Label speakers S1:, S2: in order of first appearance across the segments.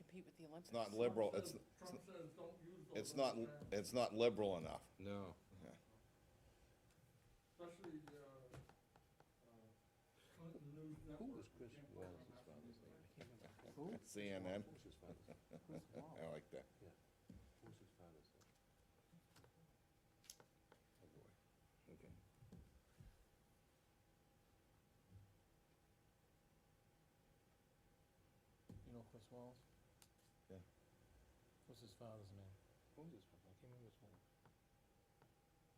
S1: compete with the Olympics.
S2: It's not liberal,
S3: Trump
S2: it's,
S3: says- Trump says don't use those.
S2: it's not,
S3: anymore,
S2: it's not liberal enough.
S4: No.
S3: Especially, uh, uh, Clinton News Network.
S4: Who was Chris
S3: can't
S4: Wallace's
S3: program that
S4: father's
S3: anymore.
S4: name? I can't remember.
S5: Who?
S4: Chris
S2: CNN.
S4: Wallace, what was his father's name? Chris
S2: I
S4: Wallace,
S2: like that.
S4: what was his father's name? Oh, boy.
S2: Okay.
S5: You know Chris Wallace?
S2: Yeah.
S5: What's his father's name?
S4: What was his father? I can't remember his name.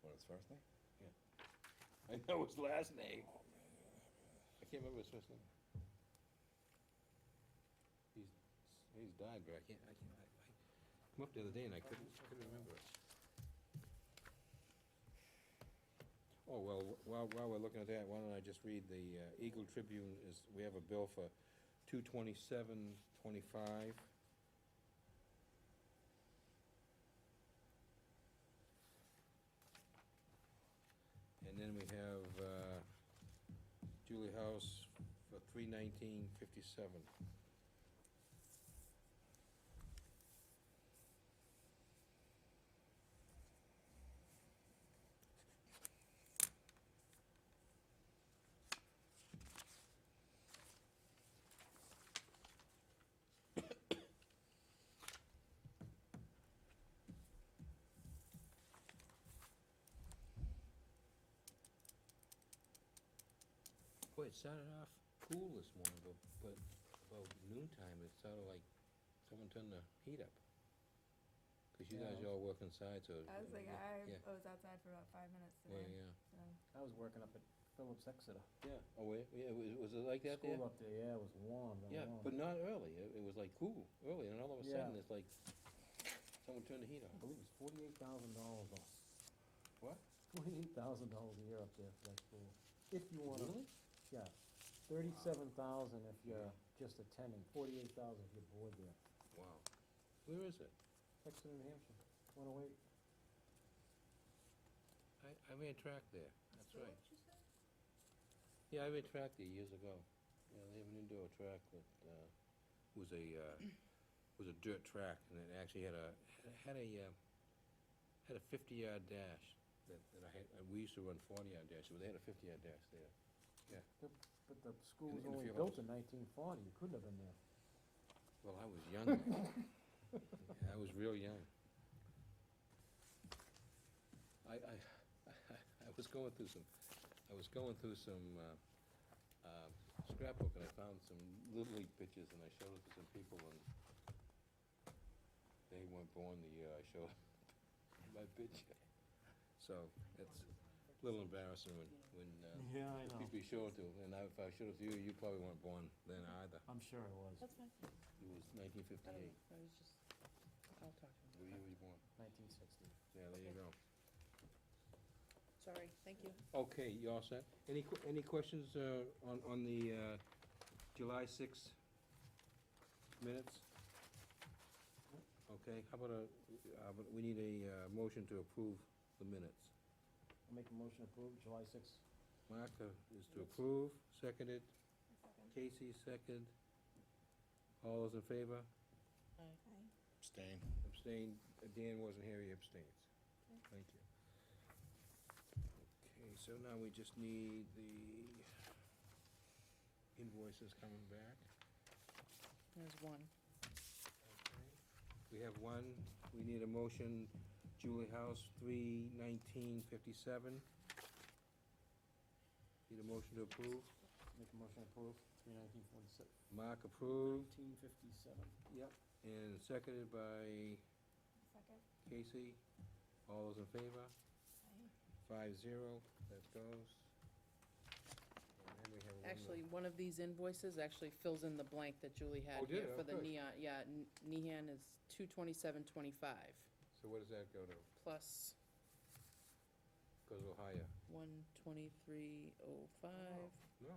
S2: What, his first name?
S4: I know his last name. I can't remember his first name. He's, he's died, but I can't, I can't, I, I come up the other day and I couldn't, couldn't remember it. Oh, well, wh- while, while we're looking at that, why don't I just read the uh, Eagle Tribune is, we have a bill for two twenty-seven twenty-five. And then we have uh, Julie House for three nineteen fifty-seven. Boy, it started off cool this morning, but, but about noontime, it started like someone turned the heat up. Cause you guys
S5: Yeah.
S4: all work inside, so.
S6: I was like, "Ah,
S4: yeah,
S6: I,
S4: Yeah,
S6: I was outside for about five minutes
S4: yeah,
S6: today.
S4: yeah.
S6: So.
S5: I was working up at Phillips Exeter.
S4: Yeah, oh, wait, yeah, was, was it like that there?
S5: School up there, yeah, it was warm, very
S4: Yeah,
S5: warm.
S4: but not early, it, it was like cool, early, and all of a
S5: Yeah.
S4: sudden, it's like, someone turned the heat
S5: I
S4: on.
S5: believe it's forty-eight thousand dollars off.
S4: What?
S5: Forty-eight thousand dollars a year up there for that school. If you wanna,
S4: Really?
S5: yeah, thirty-seven thousand if you're just attending, forty-eight thousand if you're bored there.
S4: Wow. Where is it?
S5: Exeter, New Hampshire, one oh eight.
S4: I, I ran track there, that's right. Yeah, I ran track there years ago. Yeah, they have an indoor track that, uh, was a, uh, was a dirt track, and it actually had a, had a, uh, had a fifty-yard dash that, that I had, uh, we used to run forty-yard dashes, but they had a fifty-yard dash there.
S5: But the school was
S4: in a
S5: only
S4: few
S5: built
S4: hours.
S5: in nineteen forty, you couldn't have been there.
S4: Well, I was young then. I was real young. I, I, I was going through some, I was going through some uh, uh, scrapbook and I found some Little League pictures and I showed it to some people and they weren't born the year I showed my picture. So it's a little embarrassing when, when uh,
S5: Yeah, I
S4: people you show it to, and I- if I showed it to you, you probably weren't born then either.
S5: I'm sure it was.
S1: That's fine.
S4: It was nineteen
S1: I don't
S4: fifty-eight.
S1: know. I was just, I'll talk to
S4: Where
S1: him.
S4: you was born.
S5: Nineteen sixty.
S4: Yeah, there you go.
S1: Sorry, thank you.
S4: Okay, you all set? Any, que- any questions uh, on, on the uh, July sixth minutes? Okay, how about a, uh, but we need a uh, motion to approve the minutes.
S5: I'll make a motion to approve July sixth.
S4: Martha uh, is to approve, seconded, Casey second. All those in favor?
S2: Abstain.
S4: Abstained, Uh, Dan wasn't here, he abstains. Thank you. Okay, so now we just need the invoices coming back.
S1: There's one.
S4: We have one, we need a motion, Julie House, three nineteen fifty-seven. Need a motion to approve,
S5: Make a motion to approve, three nineteen forty-six,
S4: Mark approved,
S5: nineteen fifty-seven.
S4: and seconded by
S6: Second.
S4: Casey. All those in favor? Five zero, that goes. And then we have one.
S1: Actually, one of these invoices actually fills in the blank that Julie
S4: Oh,
S1: had here
S4: did it?
S1: for the
S4: Okay.
S1: neon, yeah, N- Nehan is two twenty-seven twenty-five
S4: So what does that go to?
S1: plus
S4: Goes a little higher?
S1: one twenty-three oh five.
S4: No.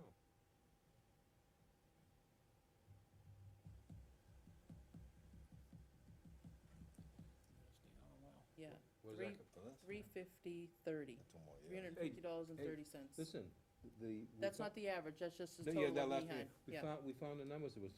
S1: Yeah,
S4: What does that
S1: Three.
S4: go-
S1: three fifty thirty,
S2: Two more
S1: three
S2: years.
S1: hundred and fifty dollars and
S4: hey,
S1: thirty cents.
S4: Listen, the. we
S1: That's
S4: fo-
S1: not the average, that's just the
S4: No, yeah,
S1: total
S4: that
S1: of
S4: last
S1: Nehan,
S4: one. We
S1: yeah.
S4: found, we found the numbers, it was